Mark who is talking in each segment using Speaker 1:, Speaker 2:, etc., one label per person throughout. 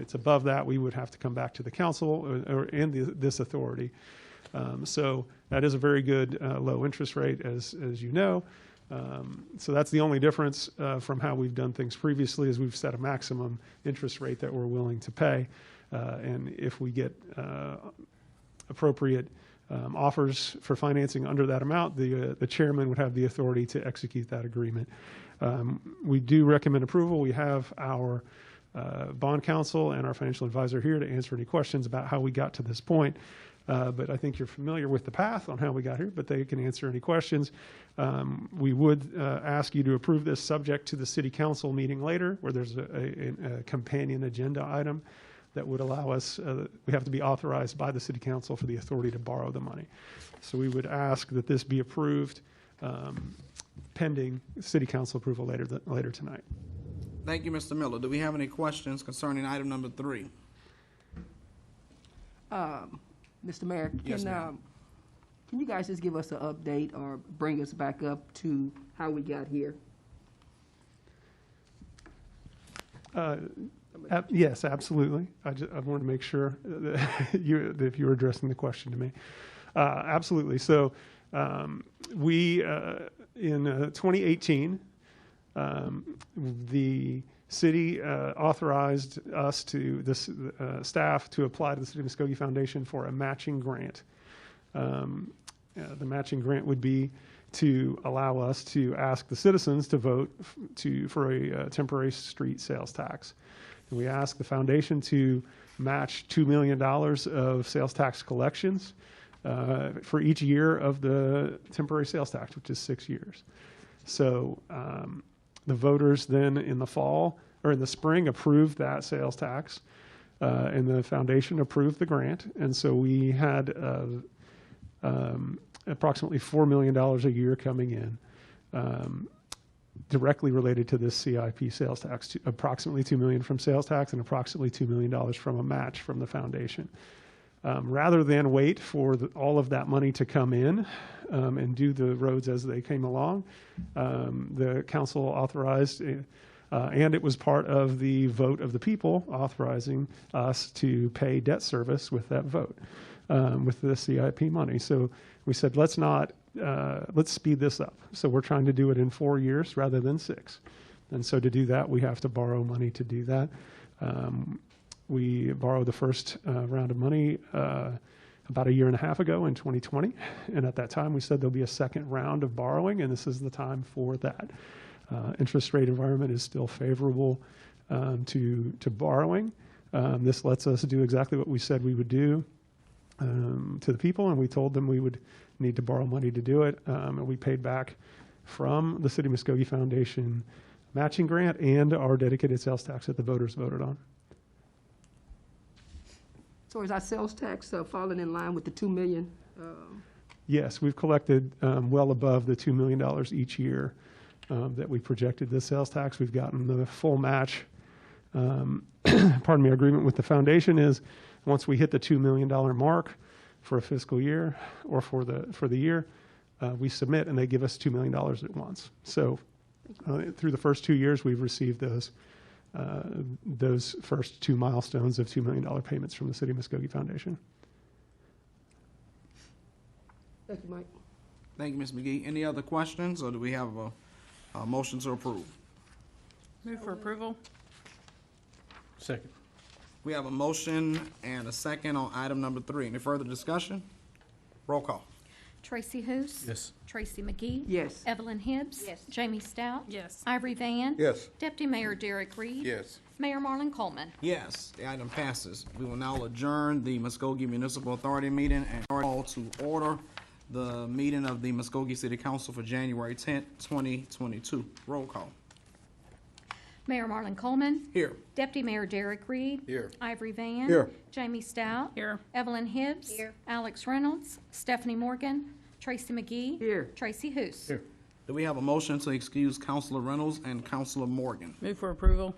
Speaker 1: it's above that, we would have to come back to the council uh, or, or and the, this authority. Um, so that is a very good uh, low interest rate, as as you know. Um, so that's the only difference uh, from how we've done things previously, is we've set a maximum interest rate that we're willing to pay, uh, and if we get uh, appropriate um, offers for financing under that amount, the, uh, the chairman would have the authority to execute that agreement. Um, We do recommend approval. We have our uh, bond counsel and our financial advisor here to answer any questions about how we got to this point. Uh, But I think you're familiar with the path on how we got here, but they can answer any questions. Um, We would uh, ask you to approve this subject to the city council meeting later, where there's a- a a companion agenda item that would allow us, uh, we have to be authorized by the city council for the authority to borrow the money. So we would ask that this be approved um, pending city council approval later, th- later tonight.
Speaker 2: Thank you, Mr. Miller. Do we have any questions concerning item number three?
Speaker 3: Mr. Mayor,
Speaker 2: Yes,
Speaker 3: can,
Speaker 2: ma'am.
Speaker 3: um, can you guys just give us an update or bring us back up to how we got here?
Speaker 1: Ab- Yes, absolutely. I ju- I wanted to make sure that you, that if you were addressing the question to me. Uh, Absolutely. So um, we, uh, in uh, 2018, um, the city uh, authorized us to, this uh, staff to apply to the City of Muskogee Foundation for a matching grant. Um, uh, The matching grant would be to allow us to ask the citizens to vote f- to, for a uh, temporary street sales tax. And we ask the foundation to match $2 million of sales tax collections uh, for each year of the temporary sales tax, which is six years. So um, the voters then in the fall, or in the spring, approved that sales tax, uh, and the foundation approved the grant. And so we had uh, um, approximately $4 million a year coming in um, directly related to this CIP sales tax, to- approximately 2 million from sales tax and approximately $2 million from a match from the foundation. Um, Rather than wait for the- all of that money to come in um, and do the roads as they came along, um, the council authorized, uh, uh, and it was part of the vote of the people authorizing us to pay debt service with that vote, um, with the CIP money. So we said, let's not, uh, let's speed this up. So we're trying to do it in four years rather than six. And so to do that, we have to borrow money to do that. Um, we borrowed the first uh, round of money uh, about a year and a half ago in 2020. And at that time, we said there'll be a second round of borrowing, and this is the time for that. Uh, interest rate environment is still favorable um, to, to borrowing. Um, this lets us do exactly what we said we would do um, to the people, and we told them we would need to borrow money to do it. Um, and we paid back from the City of Muskogee Foundation matching grant and our dedicated sales tax that the voters voted on.
Speaker 3: So is our sales tax uh, falling in line with the two million? um,
Speaker 1: Yes, we've collected um, well above the $2 million each year um, that we projected the sales tax. We've gotten the full match. Um, Pardon me, our agreement with the foundation is, once we hit the $2 million mark for a fiscal year or for the, for the year, uh, we submit and they give us $2 million at once. So uh, through the first two years, we've received those, uh, those first two milestones of $2 million payments from the City of Muskogee Foundation.
Speaker 3: Thank you, Mike.
Speaker 2: Thank you, Ms. McGee. Any other questions, or do we have a, a motion to approve?
Speaker 4: Move for approval?
Speaker 5: Second.
Speaker 2: We have a motion and a second on item number three. Any further discussion? Roll call.
Speaker 6: Tracy Hous.
Speaker 5: Yes.
Speaker 6: Tracy McGee.
Speaker 3: Yes.
Speaker 6: Evelyn Hibbs. Yes. Jamie Stout.
Speaker 4: Yes.
Speaker 6: Ivory Van.
Speaker 7: Yes.
Speaker 6: Deputy Mayor Derek Reed.
Speaker 7: Yes.
Speaker 6: Mayor Marlon Coleman.
Speaker 2: Yes, the item passes. We will now adjourn the Muskogee Municipal Authority meeting and call to order the meeting of the Muskogee City Council for January tenth, twenty twenty-two. Roll call.
Speaker 6: Mayor Marlon Coleman.
Speaker 2: Here.
Speaker 6: Deputy Mayor Derek Reed.
Speaker 7: Here.
Speaker 6: Ivory Van.
Speaker 7: Here.
Speaker 6: Jamie Stout.
Speaker 4: Here.
Speaker 6: Evelyn Hibbs.
Speaker 8: Here.
Speaker 6: Alex Reynolds. Stephanie Morgan. Tracy McGee.
Speaker 3: Here.
Speaker 6: Tracy Hous.
Speaker 5: Here.
Speaker 2: Do we have a motion to excuse Counselor Reynolds and Counselor Morgan?
Speaker 4: Move for approval?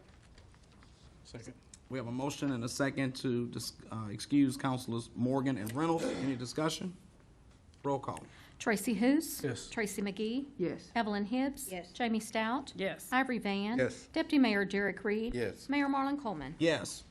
Speaker 5: Second.
Speaker 2: We have a motion and a second to dis- uh, excuse Counselors Morgan and Reynolds. Any discussion? Roll call.
Speaker 6: Tracy Hous.
Speaker 5: Yes.
Speaker 6: Tracy McGee.
Speaker 3: Yes.
Speaker 6: Evelyn Hibbs.
Speaker 8: Yes.
Speaker 6: Jamie Stout.
Speaker 4: Yes.
Speaker 6: Ivory Van.
Speaker 7: Yes.
Speaker 6: Deputy Mayor Derek Reed.
Speaker 7: Yes.
Speaker 6: Mayor Marlon Coleman.
Speaker 2: Yes.